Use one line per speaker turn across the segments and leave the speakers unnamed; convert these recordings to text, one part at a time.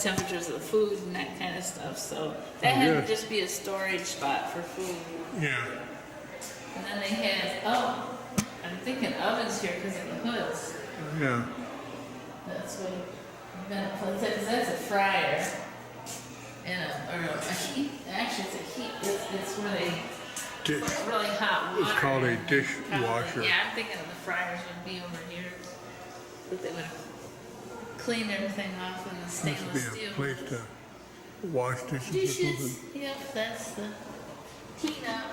temperatures of the food and that kind of stuff. So that
Oh,
had
yeah.
to just be a storage spot for food.
Yeah.
And then they had, oh, I'm thinking ovens here because of the hoods.
Yeah.
That's what I'm gonna put that because that's a fryer. And a, or a heat, actually it's a heat, it's, it's where they
Di-
put really hot water.
It's called a
in. Probably-
dishwasher.
Yeah, I'm thinking of the fryers would be over here. But they would clean everything off in the
Must be
stainless
a
steel.
place to wash dishes or
Dishes,
something.
yep, that's the heat up.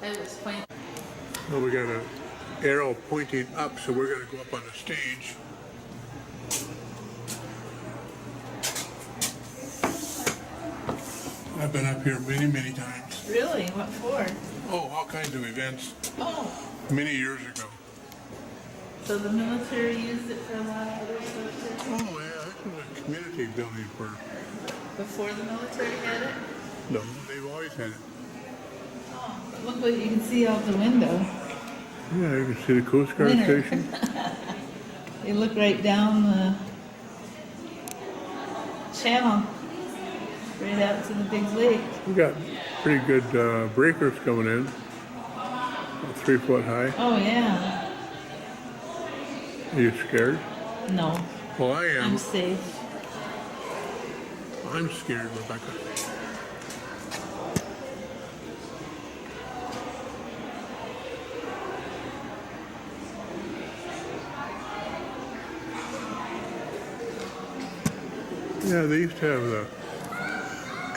That was quite,
Well, we got an arrow pointing up, so we're gonna go up on the stage. I've been up here many, many times.
really, what for?
Oh, all kinds of events,
Oh,
many years ago.
so the military used it for a lot of other stuff too?
Oh, yeah, this was a community building for,
Before the military had it?
no, they've always had it.
Oh, Look what you can see out the window.
Yeah, you can see the Coast Guard
Winter.
station.
You look right down the channel, right out to the big lake.
We got pretty good uh, breakers coming in, About three foot high.
Oh, yeah.
Are you scared?
No,
Well, I am.
I'm safe.
I'm scared, Rebecca. Yeah, they used to have the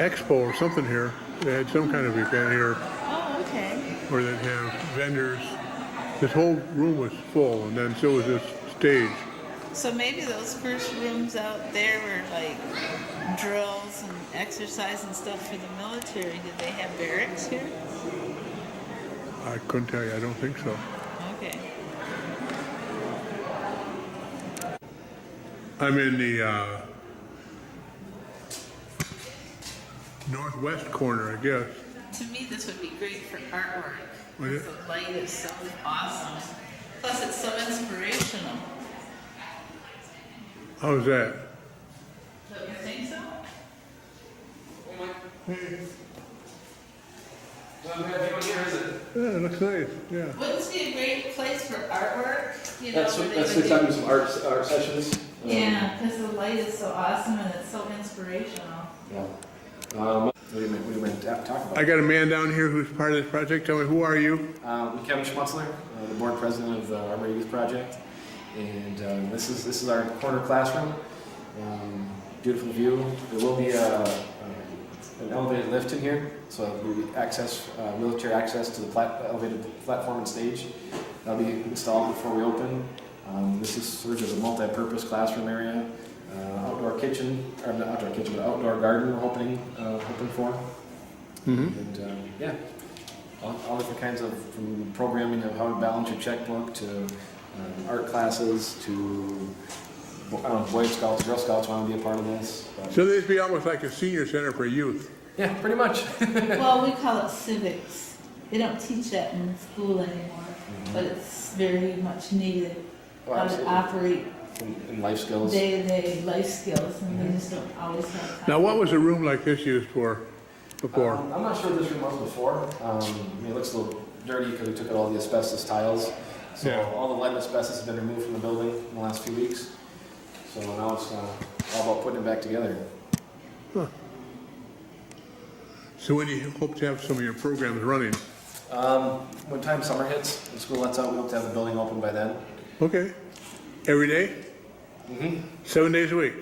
expo or something here. They had some kind of event here
Oh, okay.
where they'd have vendors. This whole room was full, and then so was this stage.
So maybe those first rooms out there were like drills and exercise and stuff for the military. Did they have barracks here?
I couldn't tell you. I don't think so.
Okay.
I'm in the uh, northwest corner, I guess.
To me, this would be great for artwork.
Would it?
The light is so awesome. Plus, it's so inspirational.
How's that?
Don't you think so?
I'm glad you were here, is it?
Yeah, it looks nice. Yeah.
Wouldn't this be a great place for artwork? You know,
That's,
where they
that's
would
the time
do-
of some art, art sessions. Um,
Yeah, because the light is so awesome and it's so inspirational.
yeah. Um, what do you mean, what do you mean, ta- talk
I
about?
got a man down here who's part of this project. Tell me, who are you?
Um, Kevin Schmutzler, uh, the board president of the Armor Youth Project. And, um, this is, this is our corner classroom. Um, beautiful view. There will be, uh, um, an elevated lift in here, so there'll be access, uh, wheelchair access to the plat, elevated platform and stage. That'll be installed before we open. Um, this is serves as a multi-purpose classroom area. Uh, outdoor kitchen, or not outdoor kitchen, but outdoor garden we're hoping, uh, hoping for. And um, yeah, all, all different kinds of from programming of how to balance your checkbook to um, art classes to I don't know, Boy Scouts, Girl Scouts want to be a part of this. But,
So this be almost like a senior center for youth.
yeah, pretty much.
Well, we call it civics. They don't teach that in school anymore, but it's very much needed.
Mm-hmm. Oh,
How to
absolutely.
operate
and, and life skills.
day-to-day life skills and
Mm-hmm.
they just don't always have time.
Now, what was a room like this used for before?
Um, I'm not sure what this room was before. Um, I mean, it looks a little dirty because we took out all the asbestos tiles. So
Yeah.
all the lead and asbestos has been removed from the building in the last few weeks. So now it's uh, all about putting it back together.
So when do you hope to have some of your programs running?
Um, when time summer hits and school lets out, we hope to have the building open by then.
Okay. Every day?
Mm-hmm.
Seven days a week?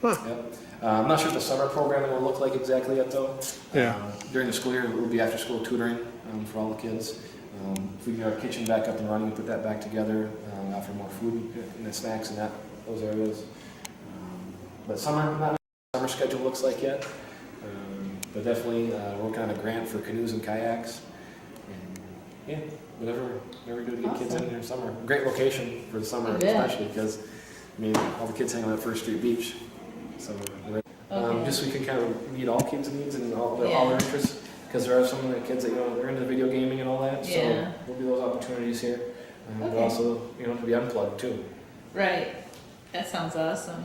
Huh.
Yep. Uh, I'm not sure what the summer programming will look like exactly yet, though.
Yeah.
Um, during the school year, it will be after school tutoring um, for all the kids. Um, if we get our kitchen back up and running, put that back together, um, offer more food and the snacks and that those areas. Um, but summer, not sure what summer schedule looks like yet. Um, but definitely uh, working on a grant for canoes and kayaks. And, yeah, whatever, whatever we do to get kids in there in summer. Great location for the summer,
I bet.
especially because I mean, all the kids hang out at First Street Beach. So, we're- um,
Okay.
just so we can kind of meet all kids' needs and all their, all their
Yeah.
interests, because there are some of the kids that, you know, they're into video gaming and all that, so
Yeah.
there'll be those opportunities here. Um, But
Okay.
also, you know, to be unplugged too.
Right. That sounds awesome.